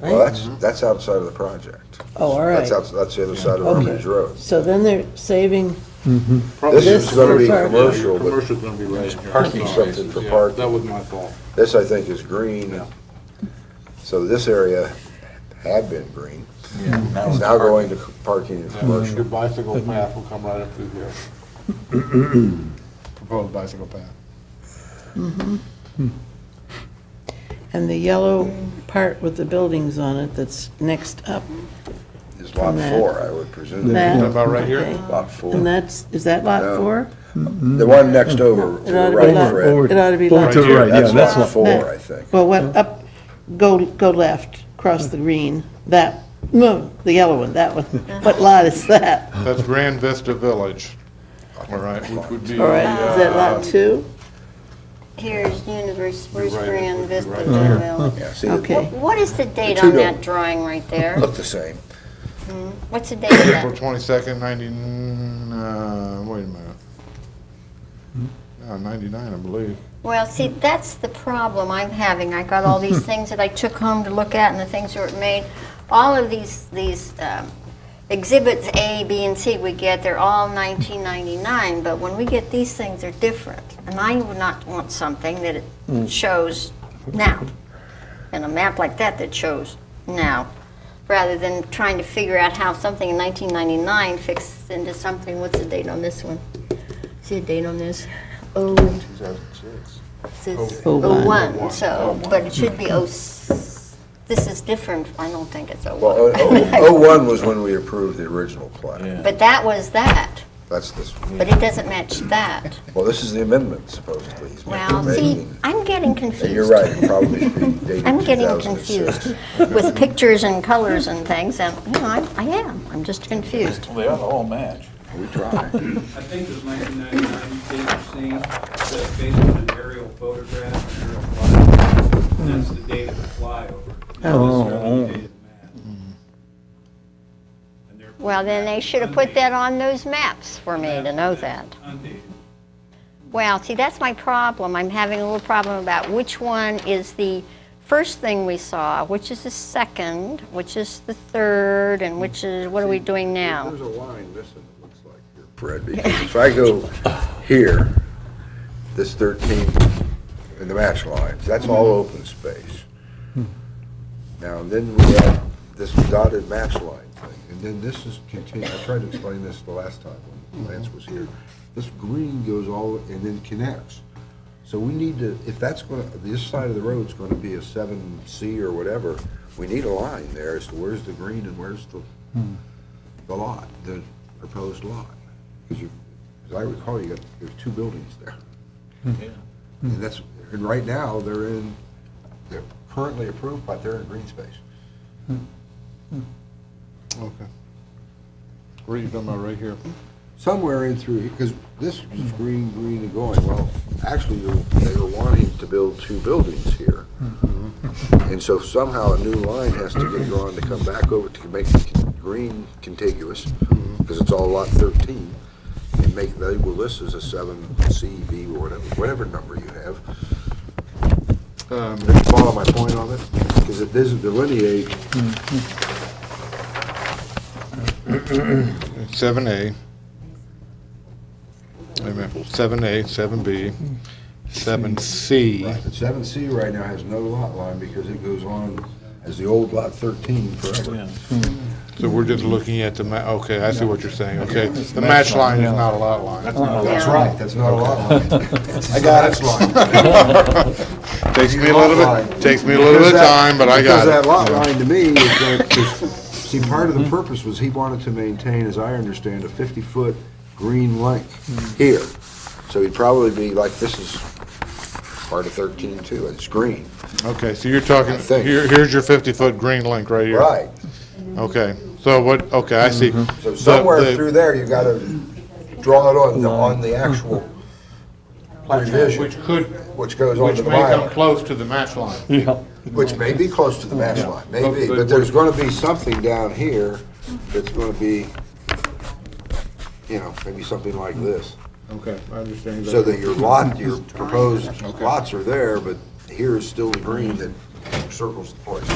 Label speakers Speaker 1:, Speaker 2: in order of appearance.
Speaker 1: Well,
Speaker 2: right?
Speaker 1: that's, that's outside of the project.
Speaker 2: Oh, all right.
Speaker 1: That's outs that's the other side of
Speaker 2: Okay.
Speaker 1: Armitage Road.
Speaker 2: So then they're saving,
Speaker 3: Probably
Speaker 2: This is gonna be
Speaker 3: commercial.
Speaker 1: commercial, but-
Speaker 3: Commercial's gonna be right in here.
Speaker 1: Parking
Speaker 3: I'm sorry.
Speaker 1: something for
Speaker 3: Yeah,
Speaker 1: parking.
Speaker 3: That was my fault.
Speaker 1: This, I think, is green. So this area had been green. It's now going to parking and commercial.
Speaker 3: Your bicycle path will come right up through here.
Speaker 4: proposed bicycle path.
Speaker 2: and the yellow part with the buildings on it that's next up,
Speaker 1: Is lot
Speaker 2: From that.
Speaker 1: four, I would presume.
Speaker 2: that?
Speaker 4: about right here?
Speaker 2: okay.
Speaker 1: Lot
Speaker 2: And
Speaker 1: four.
Speaker 2: that's, is that lot
Speaker 1: No.
Speaker 2: four?
Speaker 1: The one next over, to
Speaker 2: It
Speaker 1: the
Speaker 2: ought to be
Speaker 1: right,
Speaker 2: lot,
Speaker 1: Fred.
Speaker 2: it ought to be
Speaker 5: Over
Speaker 2: lot.
Speaker 5: to the
Speaker 2: two.
Speaker 5: right, yeah,
Speaker 1: That's
Speaker 5: that's
Speaker 1: lot
Speaker 5: lot.
Speaker 1: four, I think.
Speaker 2: Well, what, up, go, go left, cross the green, that, no, the yellow one, that one. What lot is that?
Speaker 4: That's Grand Vista Village, all right, which would be,
Speaker 2: All right, is that lot two?
Speaker 6: Here's Universe, where's
Speaker 3: right,
Speaker 6: Grand
Speaker 3: you're
Speaker 6: Vista
Speaker 3: right.
Speaker 6: Village?
Speaker 1: Oh, Yeah, see,
Speaker 2: Okay.
Speaker 1: it
Speaker 6: What- What is the date
Speaker 1: two
Speaker 6: on that
Speaker 1: don't-
Speaker 6: drawing right there?
Speaker 1: looked the same.
Speaker 6: What's the date of
Speaker 4: April
Speaker 6: that?
Speaker 4: twenty-second, ninety-nine, uh, wait a minute. Uh, ninety-nine, I believe.
Speaker 6: Well, see, that's the problem I'm having. I got all these things that I took home to look at and the things that were made. All of these, these um, exhibits A, B, and C we get, they're all 1999, but when we get these things, they're different. And I would not want something that
Speaker 2: Mm.
Speaker 6: it shows now. And a map like that that shows now, rather than trying to figure out how something in 1999 fits into something. What's the date on this one? See the date on this? Oh, says
Speaker 2: Oh, one.
Speaker 6: 01, so, but it should be 0, this is different, I don't think it's
Speaker 1: Well,
Speaker 6: 01.
Speaker 1: oh- oh- 01 was when we approved the original plan.
Speaker 6: But that was that,
Speaker 1: That's this, one.
Speaker 6: but it doesn't match that.
Speaker 1: well, this is the amendment supposedly. he's
Speaker 6: Well, see,
Speaker 1: making.
Speaker 6: I'm getting
Speaker 1: And
Speaker 6: confused.
Speaker 1: you're right, it probably should be dated
Speaker 6: I'm getting
Speaker 1: 2006.
Speaker 6: confused with pictures and colors and things, and, you know, I I am, I'm just confused.
Speaker 7: Well, they ought to all match.
Speaker 1: We tried.
Speaker 8: I think it was 1999, date of scene, based on an aerial photograph, aerial flyover. And That's the date of the flyover. not necessarily the date of the map. And they're
Speaker 6: Well, then they should have put that on those maps for me to know that.
Speaker 8: undated.
Speaker 6: Well, see, that's my problem. I'm having a little problem about which one is the first thing we saw, which is the second, which is the third, and which is, what are we doing now?
Speaker 1: There's a line missing, it looks like here, Fred, because if I go here, this 13, and the match lines, that's all open space. Now, then we have this dotted match line thing, and then this is continued, I tried to explain this the last time when Lance was here. This green goes all, and then connects. So we need to, if that's gonna, this side of the road's gonna be a 7C or whatever, we need a line there as to where's the green and where's the the lot, the proposed lot. Because you, as I recall, you got, there's two buildings there. And that's, and right now, they're in, they're currently approved, but they're in green space.
Speaker 4: Okay. Where you talking about, right here?
Speaker 1: Somewhere in through, because this is green, green and going, well, actually, you're, they were wanting to build two buildings here. And so somehow a new line has to get drawn to come back over to make the con- green contiguous, because it's all lot thirteen, and make, the- well, this is a seven C, V, or whatever, whatever number you have.
Speaker 4: Um,
Speaker 1: Did you follow my point on it? Because it doesn't delineate,
Speaker 4: seven A. Wait a minute, seven A, seven B, seven C.
Speaker 1: but seven C right now has no lot line because it goes on as the old lot thirteen forever.
Speaker 4: So we're just looking at the ma, okay, I see what you're saying, okay. The match line is not a lot line.
Speaker 1: That's
Speaker 6: Yeah.
Speaker 1: right, that's not a lot line. I
Speaker 4: got
Speaker 1: it. Line.
Speaker 4: Takes me a little bit, takes me a little bit of time, but I
Speaker 1: Because that
Speaker 4: got
Speaker 1: lot
Speaker 4: it.
Speaker 1: line to me is that, 'cause, see, part
Speaker 4: Mm-hmm.
Speaker 1: of the purpose was he wanted to maintain, as I understand, a fifty-foot green length here. So he'd probably be like, this is part of thirteen too, it's green.
Speaker 4: Okay, so you're talking,
Speaker 1: I think.
Speaker 4: here, here's your fifty-foot green link right here.
Speaker 1: Right, Mm-hmm.
Speaker 4: Okay, so what, okay, I see.
Speaker 1: so
Speaker 4: The-
Speaker 1: somewhere
Speaker 4: the-
Speaker 1: through there, you gotta draw it on, the- on the actual revision,
Speaker 4: Which could,
Speaker 1: which goes on
Speaker 4: which
Speaker 1: to the
Speaker 4: may come
Speaker 1: bylaw.
Speaker 4: close to the match line.
Speaker 5: Yeah.
Speaker 1: Which may be close to the match line, maybe,
Speaker 4: But-
Speaker 1: but there's gonna be something down here that's gonna be, you know, maybe something like this.
Speaker 4: Okay, I understand.
Speaker 1: So that your lot, your proposed lots are there, but here is still the green that circles the place.